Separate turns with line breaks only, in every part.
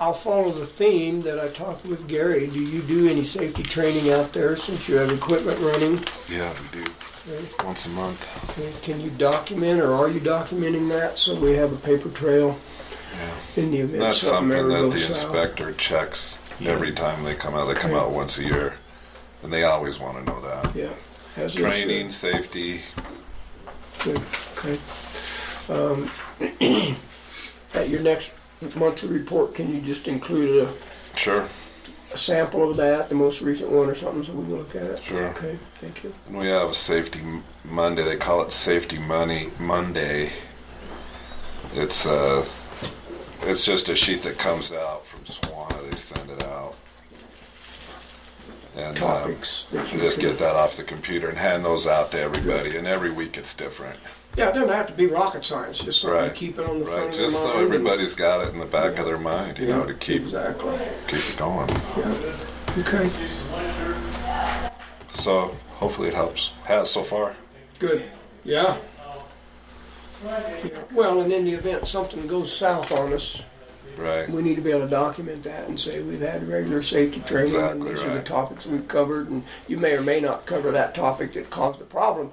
I'll follow the theme that I talked with Gary. Do you do any safety training out there since you have equipment running?
Yeah, we do. Once a month.
Okay, Can you document or are you documenting that so we have a paper trail
Yeah.
in the event
That's
something
something
ever
that
goes
the
south?
inspector checks every time they come out. They come
Okay.
out once a year, and they always want to know that.
yeah, as is, uh,
Training, safety.
Good, okay. Um, At your next monthly report, can you just include a,
Sure,
a sample of that, the most recent one or something, so we can look at it?
sure.
Okay, thank you.
And we have a safety M- Monday. They call it Safety Money Monday. It's uh, it's just a sheet that comes out from Swana. They send it out. And um,
Topics. that
So
you
just
can-
get that off the computer and hand those out to everybody. And every week it's different,
Yeah, it doesn't have to be rocket science, just something
Right,
to keep it on the front
right?
of your
Just so
mind and-
everybody's got it in the back of their mind, you know, to keep
Exactly,
keep it going.
yeah, okay,
So hopefully it helps. Has so far.
good, yeah. Yeah, Well, and in the event something goes south on us,
Right.
we need to be able to document that and say we've had regular safety training and
Exactly
these are the
right.
topics we've covered and you may or may not cover that topic that caused the problem.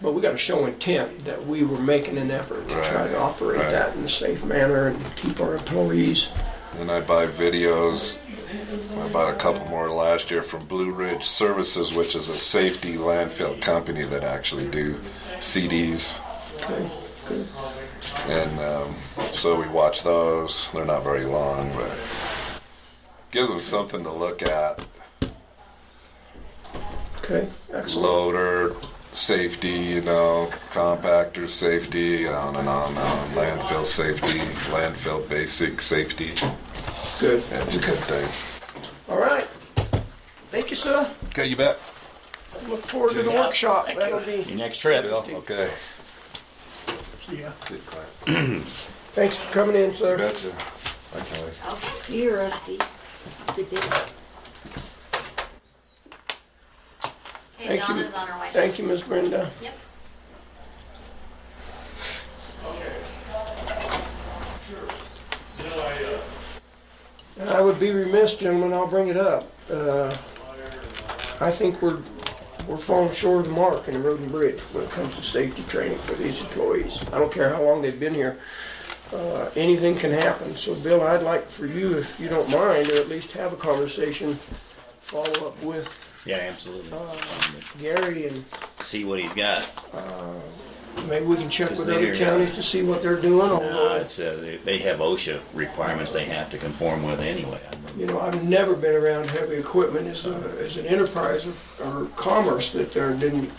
But we gotta show intent that we were making an effort to try
Right,
to operate
right.
that in a safe manner and keep our employees.
Then I buy videos. I bought a couple more last year from Blue Ridge Services, which is a safety landfill company that actually do CDs.
Okay, good.
And um, so we watch those. They're not very long, but gives them something to look at.
Okay, excellent.
Loader, safety, you know, compactor safety, on and on and on. Landfill safety, landfill basic safety.
Good.
That's a good thing.
All right. Thank you, sir.
Okay, you bet.
Look forward to the workshop. That'll be,
Your next trip.
Okay.
thanks for coming in, sir.
Gotcha. Bye, Kelly.
See you, Rusty. Good day.
Hey,
Thank you.
Donna's on her way.
Thank you, Ms. Brenda.
Yep.
And I would be remiss, gentlemen, I'll bring it up. Uh, I think we're, we're falling short of the mark in the road and bridge when it comes to safety training for these employees. I don't care how long they've been here. Uh, Anything can happen. So Bill, I'd like for you, if you don't mind, or at least have a conversation, follow up with
Yeah, absolutely.
Gary and
See what he's got.
Maybe we can check
Because
with
they
other
are-
counties to see what they're doing,
Uh,
although,
it's, uh, they- they have OSHA requirements they have to conform with anyway. I mean,
you know, I've never been around heavy equipment as a, as an enterprise or- or commerce that there didn't,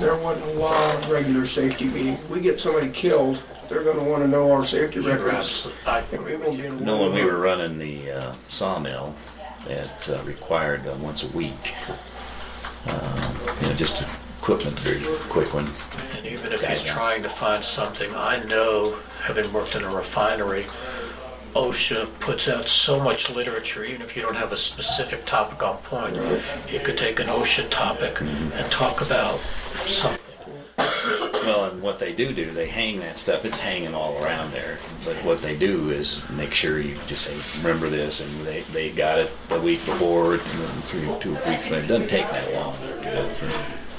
there wasn't a lot of regular safety meeting. We get somebody killed, they're gonna wanna know our safety records. And we won't be in a-
No, when we were running the uh, sawmill, that uh, required uh, once a week. Uh, you know, just equipment, very quick one.
And even if he's
Yeah.
trying to find something, I know, having worked in a refinery, OSHA puts out so much literature, even if you don't have a specific topic on point, you could take an OSHA topic and talk about something.
Well, and what they do do, they hang that stuff. It's hanging all around there. But what they do is make sure you just say, remember this, and they, they got it the week before, and then three or two weeks later. It doesn't take that long to go through.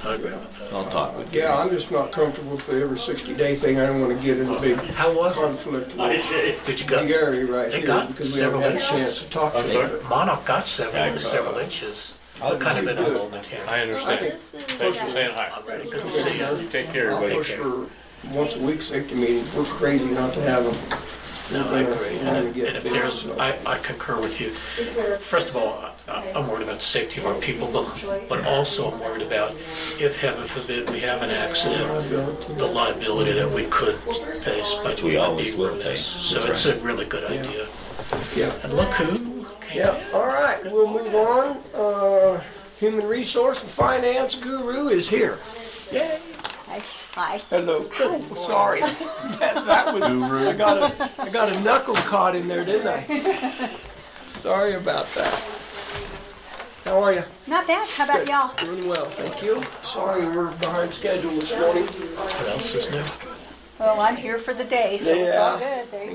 I agree with that.
I'll talk with you.
Yeah, I'm just not comfortable with the every sixty day thing, I don't wanna get in a big
How was it?
conflict with
Did you go,
Gary right
They
here,
got
because we haven't
several
had a
inches.
chance to talk to
sorry?
him.
Monarch got
Yeah, I
several,
got
several inches. We're kind of in a moment here.
I understand.
This is,
Thanks for saying
I'm
hi.
ready to see you.
Take care,
I'll
everybody.
push for once a week safety meetings, we're crazy not to have them.
No, I agree. And
Yeah.
and if there's, I, I concur with you. First of all, I- I'm worried about the safety of our people, but, but also I'm worried about if, heaven forbid, we have an accident, the liability that we could face by
we always
being
will
remiss.
face.
So
That's
it's a really good idea.
Yeah.
And look who came
Yeah, all right, we'll move on. Uh, Human resource and finance guru is here.
Hi. Hi.
Hello. Sorry, that, that was, I got a, I got a knuckle caught in there, didn't I? Sorry about that. How are you?
Not bad. How about y'all?
Doing well, thank you. Sorry we're behind schedule this morning.
What else is new?
Well, I'm here for the day, so it's all
Yeah.
good. There you